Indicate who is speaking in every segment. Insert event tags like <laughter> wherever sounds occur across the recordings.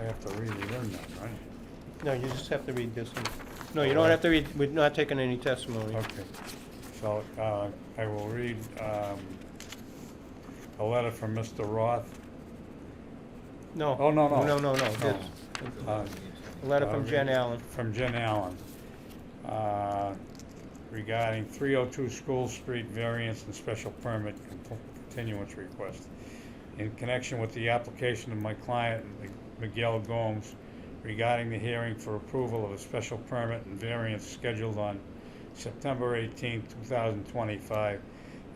Speaker 1: have to read it in then, right?
Speaker 2: No, you just have to read this one. No, you don't have to read, we're not taking any testimony.
Speaker 1: Okay, so, uh, I will read, um, a letter from Mr. Roth.
Speaker 2: No.
Speaker 1: Oh, no, no.
Speaker 2: No, no, no.
Speaker 1: No.
Speaker 2: It's
Speaker 1: Uh,
Speaker 2: a letter from
Speaker 1: Okay.
Speaker 2: Jen Allen.
Speaker 1: From Jen Allen, uh, regarding three oh two School Street variance and special permit con- continuance request. In connection with the application of my client Miguel Gomes regarding the hearing for approval of a special permit and variance scheduled on September eighteenth, two thousand twenty-five.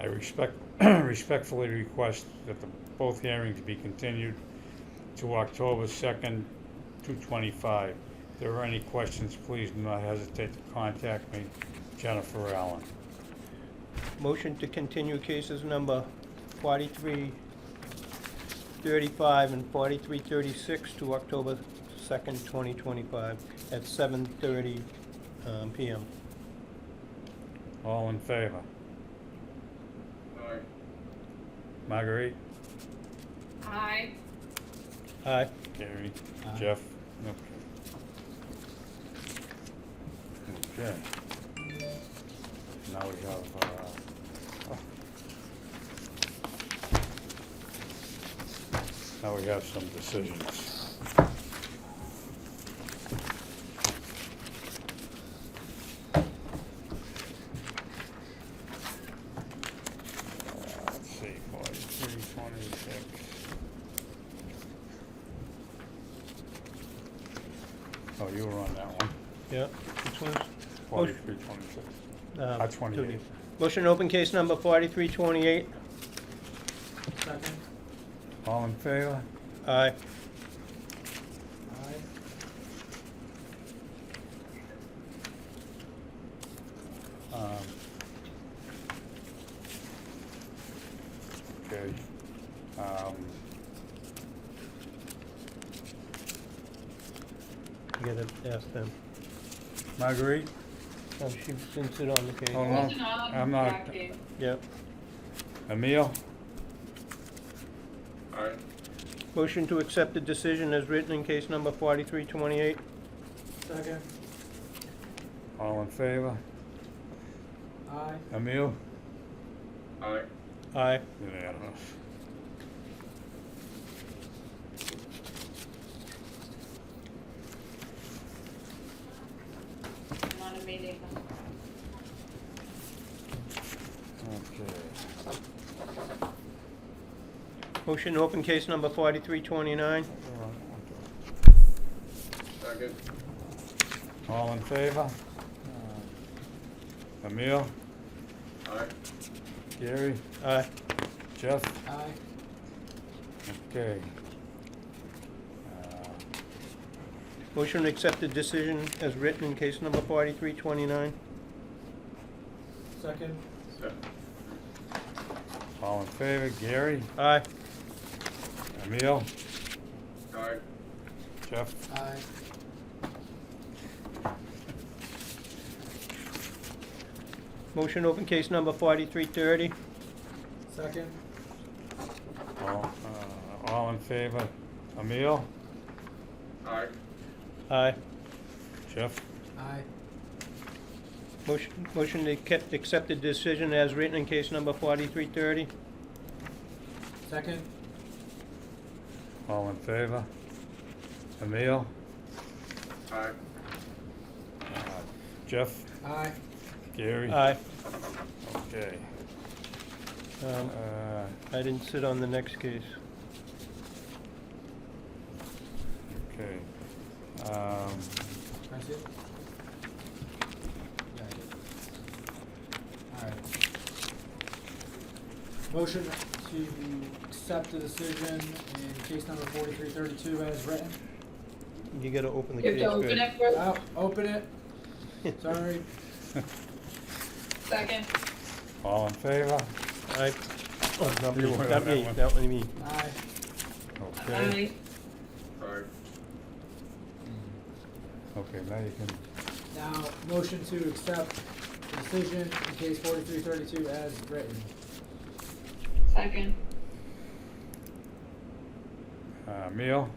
Speaker 1: I respect, <clears throat> respectfully request that the, both hearings be continued to October second, two twenty-five. If there are any questions, please do not hesitate to contact me, Jennifer Allen.
Speaker 2: Motion to continue cases number forty-three thirty-five and forty-three thirty-six to October second, twenty twenty-five at seven thirty, um, PM.
Speaker 1: All in favor?
Speaker 3: Aye.
Speaker 1: Marguerite?
Speaker 4: Aye.
Speaker 2: Aye.
Speaker 1: Gary?
Speaker 2: Aye.
Speaker 1: Jeff? Okay. Okay. Now we have, uh, now we have some decisions. Uh, Let's see, forty-three, twenty-six. Oh, you were on that one.
Speaker 2: Yeah. Which one's? Motion-
Speaker 1: Forty-three, twenty-six.
Speaker 2: uh,
Speaker 1: Uh, 28.
Speaker 2: Judy. Motion to open case number forty-three twenty-eight.
Speaker 3: Second?
Speaker 1: All in favor?
Speaker 2: Aye.
Speaker 3: Aye.
Speaker 1: Um, Okay. Um,
Speaker 2: You gotta ask them.
Speaker 1: Marguerite?
Speaker 2: Oh, she didn't sit on the case.
Speaker 1: Hold on.
Speaker 4: Wasn't on
Speaker 1: Uh, I'm not-
Speaker 4: that case.
Speaker 2: Yep.
Speaker 1: Emil?
Speaker 3: Aye.
Speaker 2: Motion to accept the decision as written in case number forty-three twenty-eight.
Speaker 3: Second?
Speaker 1: All in favor?
Speaker 3: Aye.
Speaker 1: Emil?
Speaker 3: Aye.
Speaker 2: Aye.
Speaker 1: Unanimous.
Speaker 4: I'm on a meeting.
Speaker 1: Okay.
Speaker 2: Motion to open case number forty-three twenty-nine.
Speaker 3: Second?
Speaker 1: All in favor? Emil?
Speaker 3: Aye.
Speaker 1: Gary?
Speaker 2: Aye.
Speaker 1: Jeff?
Speaker 3: Aye.
Speaker 1: Okay. Uh,
Speaker 2: Motion to accept the decision as written in case number forty-three twenty-nine.
Speaker 3: Second? Second.
Speaker 1: All in favor? Gary?
Speaker 2: Aye.
Speaker 1: Emil?
Speaker 3: Aye.
Speaker 1: Jeff?
Speaker 3: Aye.
Speaker 2: Motion to open case number forty-three thirty.
Speaker 3: Second?
Speaker 1: All, uh, all in favor? Emil?
Speaker 3: Aye.
Speaker 2: Aye.
Speaker 1: Jeff?
Speaker 3: Aye.
Speaker 2: Motion, motion to kept, accept the decision as written in case number forty-three thirty.
Speaker 3: Second?
Speaker 1: All in favor? Emil?
Speaker 3: Aye.
Speaker 1: Uh, Jeff?
Speaker 3: Aye.
Speaker 1: Gary?
Speaker 2: Aye.
Speaker 1: Okay.
Speaker 2: Um,
Speaker 1: Uh,
Speaker 2: I didn't sit on the next case.
Speaker 1: okay. Um, <laughs>
Speaker 3: That's it? Yeah, I did. Alright. Motion to accept the decision in case number forty-three thirty-two as written.
Speaker 2: You gotta open the
Speaker 4: You have
Speaker 2: case.
Speaker 4: to open
Speaker 2: first.
Speaker 4: it first,
Speaker 3: Oh, open it,
Speaker 2: <laughs>
Speaker 3: sorry.
Speaker 4: second.
Speaker 1: all in favor?
Speaker 2: Aye. Oh, not
Speaker 1: You
Speaker 2: me,
Speaker 1: were on
Speaker 2: not
Speaker 1: that
Speaker 2: me,
Speaker 1: one.
Speaker 2: not me.
Speaker 3: Aye.
Speaker 1: Okay.
Speaker 4: Aye.
Speaker 3: Aye.
Speaker 1: Okay, now you can,
Speaker 3: Now, motion to accept the decision in case forty-three thirty-two as written.
Speaker 4: Second.
Speaker 1: uh, Emil?